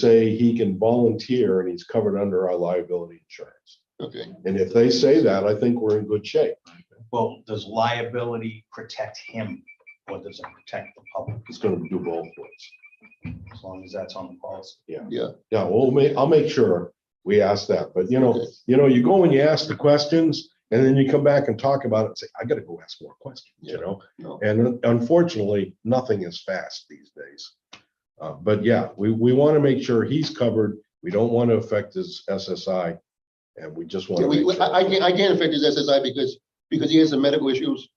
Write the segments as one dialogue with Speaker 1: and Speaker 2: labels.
Speaker 1: say he can volunteer and he's covered under our liability insurance.
Speaker 2: Okay,
Speaker 1: And if they say that, I think we're in good shape.
Speaker 3: Well, does liability protect him or does it protect the public
Speaker 1: It's gonna do both ways.
Speaker 3: as long as that's on the policy?
Speaker 1: Yeah, we'll make, I'll make sure we ask that, but you know,
Speaker 2: Okay.
Speaker 1: you know, you go and you ask the questions and then you come back and talk about it and say, I gotta go ask more questions, you know?
Speaker 2: no,
Speaker 1: And unfortunately, nothing is fast these days. Uh, but yeah, we, we want to make sure he's covered. We don't want to affect his SSI. And we just want
Speaker 2: Yeah,
Speaker 1: to.
Speaker 2: we, we- I, I can't, I can't affect his SSI because, because he has some medical issues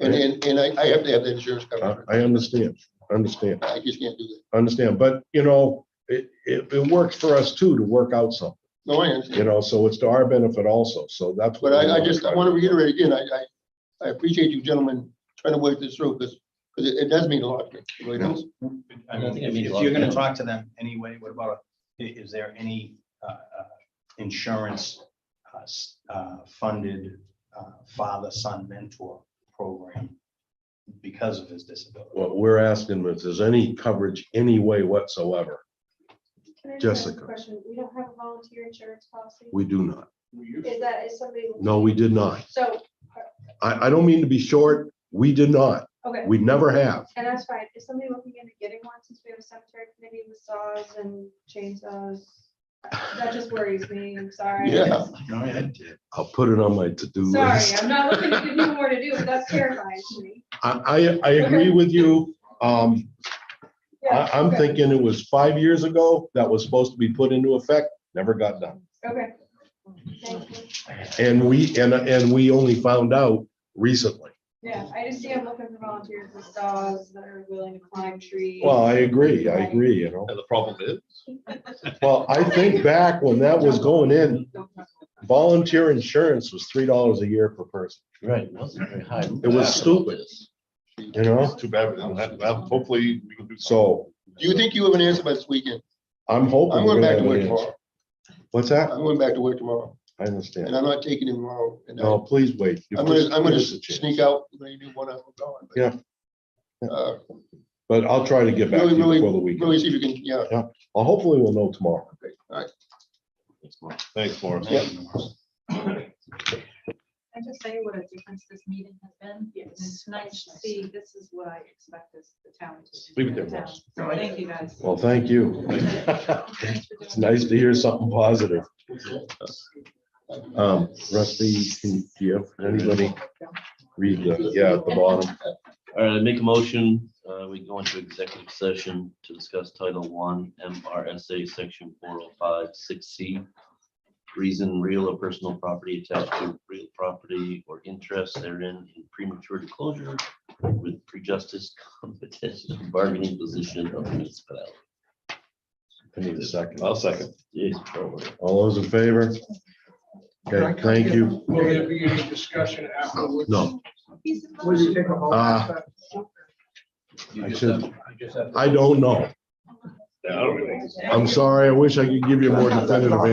Speaker 2: and, and, and I, I have to have that insurance
Speaker 1: I
Speaker 2: coverage.
Speaker 1: Oh, I understand, understand,
Speaker 2: I just can't do that.
Speaker 1: understand, but you know, it, it, it works for us too to work out something,
Speaker 2: No, I
Speaker 1: you
Speaker 2: understand,
Speaker 1: know, so it's to our benefit also, so that's. what we
Speaker 2: but I, I
Speaker 1: wanna
Speaker 2: just,
Speaker 1: try
Speaker 2: I
Speaker 1: to
Speaker 2: want to
Speaker 1: do.
Speaker 2: reiterate again, I, I, I appreciate you gentlemen trying to work this through because, because it, it does mean a lot. It really does.
Speaker 3: I
Speaker 4: I
Speaker 3: mean,
Speaker 4: think it
Speaker 3: if
Speaker 4: means a
Speaker 3: if
Speaker 4: lot.
Speaker 3: you're gonna talk to them anyway, what about, i- is there any uh, uh, insurance uh, s- uh, funded uh, father-son mentor program because of his disability?
Speaker 1: What we're asking is, is any coverage any way whatsoever?
Speaker 5: Can I just ask a
Speaker 1: Jessica.
Speaker 5: Question, we don't have a volunteer insurance policy?
Speaker 1: We do not.
Speaker 5: Is that, is somebody?
Speaker 1: No, we did not.
Speaker 5: So,
Speaker 1: I, I don't mean to be short. We did not.
Speaker 5: okay,
Speaker 1: We never have.
Speaker 5: and that's fine, is somebody looking into getting one since we have a cemetery committee with saws and chainsaws? That just worries me, I'm sorry.
Speaker 2: Yeah.
Speaker 1: I'll put it on my to-do
Speaker 5: Sorry,
Speaker 1: list.
Speaker 5: I'm not looking to give you more to do, but that's terrifying to me.
Speaker 1: I, I, I agree with you. Um, I,
Speaker 5: Yeah,
Speaker 1: I'm
Speaker 5: okay,
Speaker 1: thinking it was five years ago that was supposed to be put into effect, never got done.
Speaker 5: Okay. Thank you.
Speaker 1: And we, and, and we only found out recently.
Speaker 5: Yeah, I just see I'm looking for volunteers with saws that are willing to climb trees.
Speaker 1: Well, I agree, I agree, you know.
Speaker 4: And the problem is,
Speaker 1: Well, I think back when that was going in, volunteer insurance was three dollars a year per person,
Speaker 4: right, it wasn't very high.
Speaker 1: It was stupid. you know?
Speaker 6: Too bad. we don't have- well, Hopefully, we can do something.
Speaker 1: So
Speaker 2: Do you think you have an answer by this weekend?
Speaker 1: I'm hoping.
Speaker 2: I'm
Speaker 1: we're
Speaker 2: going
Speaker 1: gonna
Speaker 2: back
Speaker 1: have
Speaker 2: to
Speaker 1: an
Speaker 2: work
Speaker 1: answer.
Speaker 2: tomorrow.
Speaker 1: What's that?
Speaker 2: I'm going back to work tomorrow
Speaker 1: I
Speaker 2: and
Speaker 1: understand.
Speaker 2: I'm not taking him tomorrow. And I-
Speaker 1: No, please wait.
Speaker 2: I'm gonna, I'm gonna
Speaker 1: Give us a chance.
Speaker 2: sneak out, maybe one hour gone. but,
Speaker 1: Yeah.
Speaker 2: Uh,
Speaker 1: But I'll try to get back to
Speaker 2: Really,
Speaker 1: you
Speaker 2: really,
Speaker 1: before the
Speaker 2: really
Speaker 1: weekend.
Speaker 2: see if you can, yeah,
Speaker 1: I'll Hopefully we'll know tomorrow.
Speaker 2: okay, all right.
Speaker 6: Thanks, Morris.
Speaker 7: Can I just say what a difference this meeting has been? It's nice to see, this is what I expect as the town. to do
Speaker 1: Leave it
Speaker 7: for
Speaker 1: there, Ross.
Speaker 7: the town. So Thank you, guys.
Speaker 1: Well, thank you.
Speaker 7: Thanks for doing
Speaker 1: It's nice to hear something positive. Um, Rusty, can you, anybody read the, yeah, at the bottom?
Speaker 4: All right, I make a motion, uh, we go into executive session to discuss Title One, MRSA, Section four oh five, six C. Reason real or personal property attached to real property or interest therein in premature disclosure with prejudice competition bargaining position of municipality.
Speaker 1: I need a second.
Speaker 6: I'll second.
Speaker 4: Jeez, probably.
Speaker 1: All those in favor? Okay, thank you.
Speaker 8: Will there be any discussion afterwards?
Speaker 1: No,
Speaker 8: Will you take a vote?
Speaker 1: Uh,
Speaker 3: You
Speaker 1: I
Speaker 3: just
Speaker 1: should-
Speaker 3: have- you just have to-
Speaker 1: I don't know.
Speaker 6: Yeah, I don't really.
Speaker 1: I'm sorry. I wish I could give you a more definitive